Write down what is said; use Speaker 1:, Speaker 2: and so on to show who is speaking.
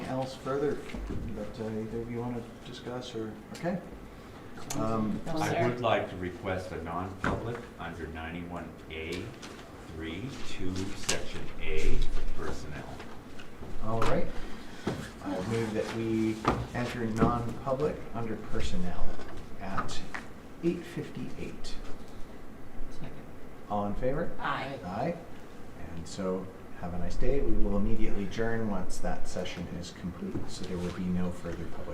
Speaker 1: discuss further, but uh, either of you want to discuss or, okay? Um,
Speaker 2: I would like to request a non-public under ninety-one A, three, two, section A, for personnel.
Speaker 1: All right. I move that we enter non-public under personnel at eight fifty-eight. All in favor?
Speaker 3: Aye.
Speaker 1: Aye. And so, have a nice day. We will immediately adjourn once that session is complete, so there will be no further public